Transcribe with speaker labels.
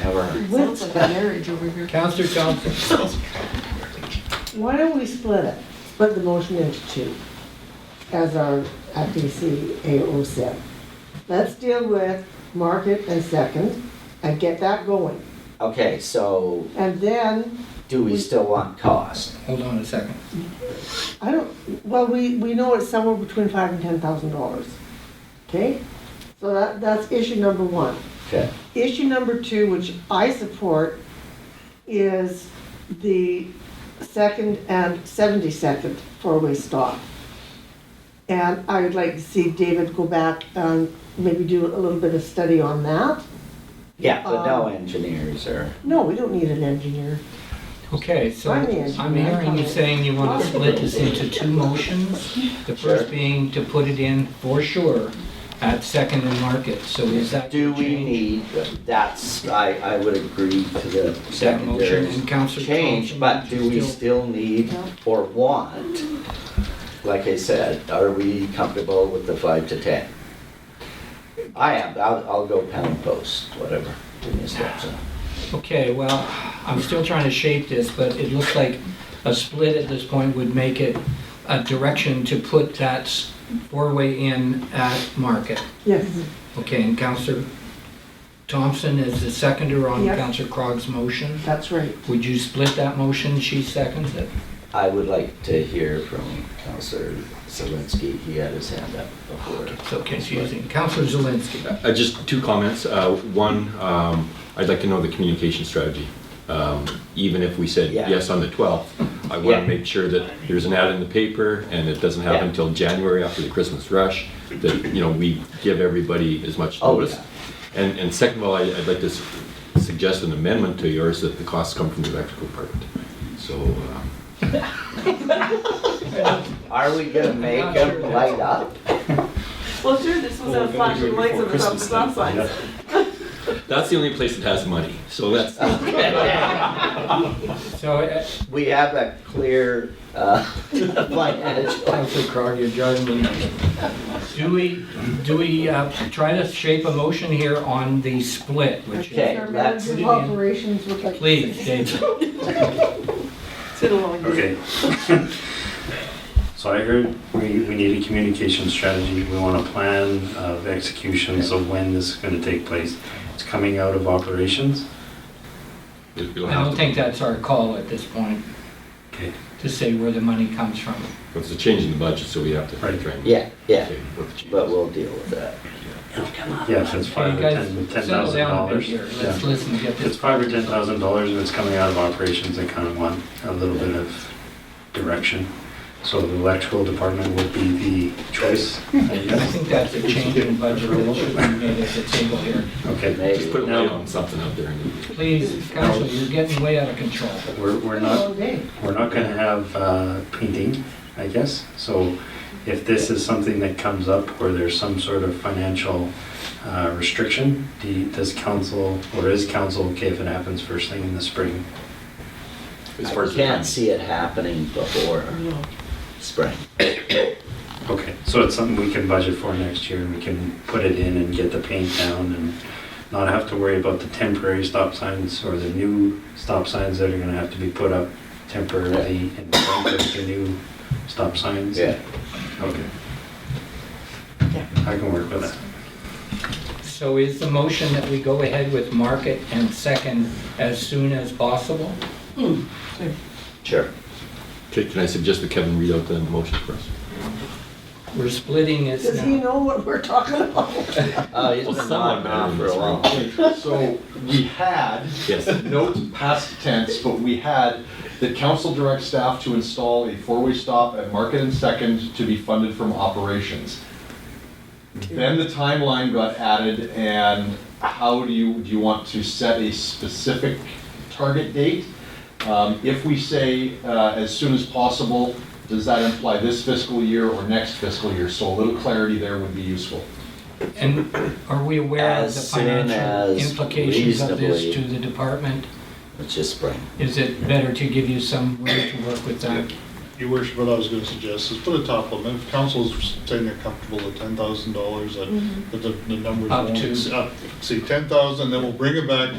Speaker 1: However,
Speaker 2: Sounds
Speaker 3: Let's,
Speaker 2: like a marriage over here.
Speaker 4: Counselor Johnson,
Speaker 3: why don't we split it, split the motion into two as our FDC AO said. Let's deal with market and second and get that going.
Speaker 1: okay, so
Speaker 3: And then,
Speaker 1: do we still want cost?
Speaker 4: hold on a second.
Speaker 3: I don't, well, we, we know it's somewhere between five and ten thousand dollars. Okay? So that, that's issue number one.
Speaker 1: Okay,
Speaker 3: Issue number two, which I support, is the second and 72nd four-way stop. And I would like to see David go back and maybe do a little bit of study on that.
Speaker 1: yeah, but no engineers or,
Speaker 3: No, we don't need an engineer.
Speaker 4: Okay, so
Speaker 3: Why me?
Speaker 4: I'm hearing you saying you want to split this into two motions. The
Speaker 1: Sure.
Speaker 4: first being to put it in for sure at Second and Market, so is that
Speaker 1: do we
Speaker 4: change?
Speaker 1: need, that's, I, I would agree to the
Speaker 4: That motion
Speaker 1: secondary
Speaker 4: and Counselor
Speaker 1: change,
Speaker 4: Thompson
Speaker 1: but do we
Speaker 4: still-
Speaker 1: still need or want? Like I said, are we comfortable with the five to ten? I am, I'll, I'll go pound post, whatever, give me a step, so.
Speaker 4: Okay, well, I'm still trying to shape this, but it looks like a split at this point would make it a direction to put that s- four-way in at Market.
Speaker 3: Yes,
Speaker 4: Okay, and Counselor Thompson is the seconder on
Speaker 3: Yes.
Speaker 4: Counselor Crog's motion.
Speaker 3: that's right.
Speaker 4: Would you split that motion? She seconds it.
Speaker 1: I would like to hear from Counselor Zelinski, he had his hand up before.
Speaker 4: So confusing. Counselor Zelinski.
Speaker 5: Uh, Just two comments. Uh, One, um, I'd like to know the communication strategy. Um, Even if we said
Speaker 1: Yeah.
Speaker 5: yes on the 12th, I want
Speaker 1: Yeah.
Speaker 5: to make sure that there's an ad in the paper and it doesn't happen
Speaker 1: Yeah.
Speaker 5: until January after the Christmas rush, that, you know, we give everybody as much
Speaker 1: Oh,
Speaker 5: notice. And, and second of all, I- I'd like to s- suggest an amendment to yours that the costs come from the electrical department. So, um,
Speaker 1: Are we gonna make
Speaker 4: I'm not sure
Speaker 1: them
Speaker 4: that's-
Speaker 1: light up?
Speaker 2: Well, sure, this was a flashing lights on the top of stop signs.
Speaker 5: that's the only place that has money, so that's,
Speaker 4: So, uh,
Speaker 1: We have a clear, uh, financial.
Speaker 4: Counselor Crog, you're judging me. Do we, do we uh, try to shape a motion here on the split, which is,
Speaker 1: Okay, that's,
Speaker 4: Put it in.
Speaker 3: Operations would like.
Speaker 4: please, David?
Speaker 2: It's been a long day.
Speaker 6: Okay. So I heard we, we need a communication strategy, we want a plan of executions of when this is gonna take place. It's coming out of operations,
Speaker 5: it'll
Speaker 4: I
Speaker 5: have
Speaker 4: don't
Speaker 5: to-
Speaker 4: think that's our call at this point,
Speaker 6: okay,
Speaker 4: to say where the money comes from.
Speaker 5: It's a change in the budget, so we have to.
Speaker 6: Right.
Speaker 5: try and-
Speaker 1: yeah, yeah,
Speaker 5: Okay, what the change
Speaker 1: but
Speaker 5: is.
Speaker 1: we'll deal with that.
Speaker 6: yeah, if it's
Speaker 4: Okay,
Speaker 6: five
Speaker 4: you
Speaker 6: or
Speaker 4: guys
Speaker 6: ten, ten
Speaker 4: settle
Speaker 6: thousand
Speaker 4: down a bit
Speaker 6: dollars.
Speaker 4: here. Let's
Speaker 6: Yeah.
Speaker 4: listen, get
Speaker 6: If it's
Speaker 4: this.
Speaker 6: five or ten thousand dollars and it's coming out of operations, I kinda want a little bit of direction. So the electrical department would be the choice, I
Speaker 4: I
Speaker 6: guess.
Speaker 4: think that's a change in budget that should be made at the table here.
Speaker 6: Okay,
Speaker 1: Maybe.
Speaker 5: Just put a
Speaker 6: No.
Speaker 5: light on something out there.
Speaker 4: Please, Counselor, you're getting way out of control.
Speaker 6: we're, we're not
Speaker 3: All day.
Speaker 6: We're not going to have uh, painting, I guess. So if this is something that comes up where there's some sort of financial uh, restriction, do- does council, or is council okay if it happens first thing in the spring?
Speaker 5: As far
Speaker 1: I
Speaker 5: as the
Speaker 1: can't
Speaker 5: timing.
Speaker 1: see it happening before spring.
Speaker 6: Okay, so it's something we can budget for next year and we can put it in and get the paint down and not have to worry about the temporary stop signs or the new stop signs that are going to have to be put up temporarily in front of the new stop signs.
Speaker 1: Yeah,
Speaker 6: Okay.
Speaker 2: Yeah.
Speaker 6: I can work with that.
Speaker 4: So is the motion that we go ahead with market and second as soon as possible?
Speaker 1: sure.
Speaker 5: Okay, can I suggest that Kevin read out the motion for us?
Speaker 4: We're splitting it
Speaker 3: Does he
Speaker 4: now.
Speaker 3: know what we're talking about?
Speaker 1: Oh, he's been
Speaker 5: Well, someone
Speaker 1: knocking around
Speaker 5: better
Speaker 1: for a
Speaker 5: than
Speaker 1: while.
Speaker 7: So we had,
Speaker 5: Yes.
Speaker 7: note past tense, but we had that council direct staff to install a four-way stop at Market and Second to be funded from operations. Then the timeline got added and how do you, do you want to set a specific target date? Um, If we say uh, as soon as possible, does that imply this fiscal year or next fiscal year? So a little clarity there would be useful.
Speaker 4: And are we aware of the
Speaker 1: As soon
Speaker 4: financial
Speaker 1: as
Speaker 4: implications of this to
Speaker 1: reasonably.
Speaker 4: the department?
Speaker 1: It's just spring.
Speaker 4: Is it better to give you some room to work with that?
Speaker 8: Your worship, what I was gonna suggest is put a top limit, if council's saying they're comfortable at ten thousand dollars, that that the, the numbers
Speaker 4: Up
Speaker 8: won't
Speaker 4: to.
Speaker 8: exceed ten thousand, then we'll bring it back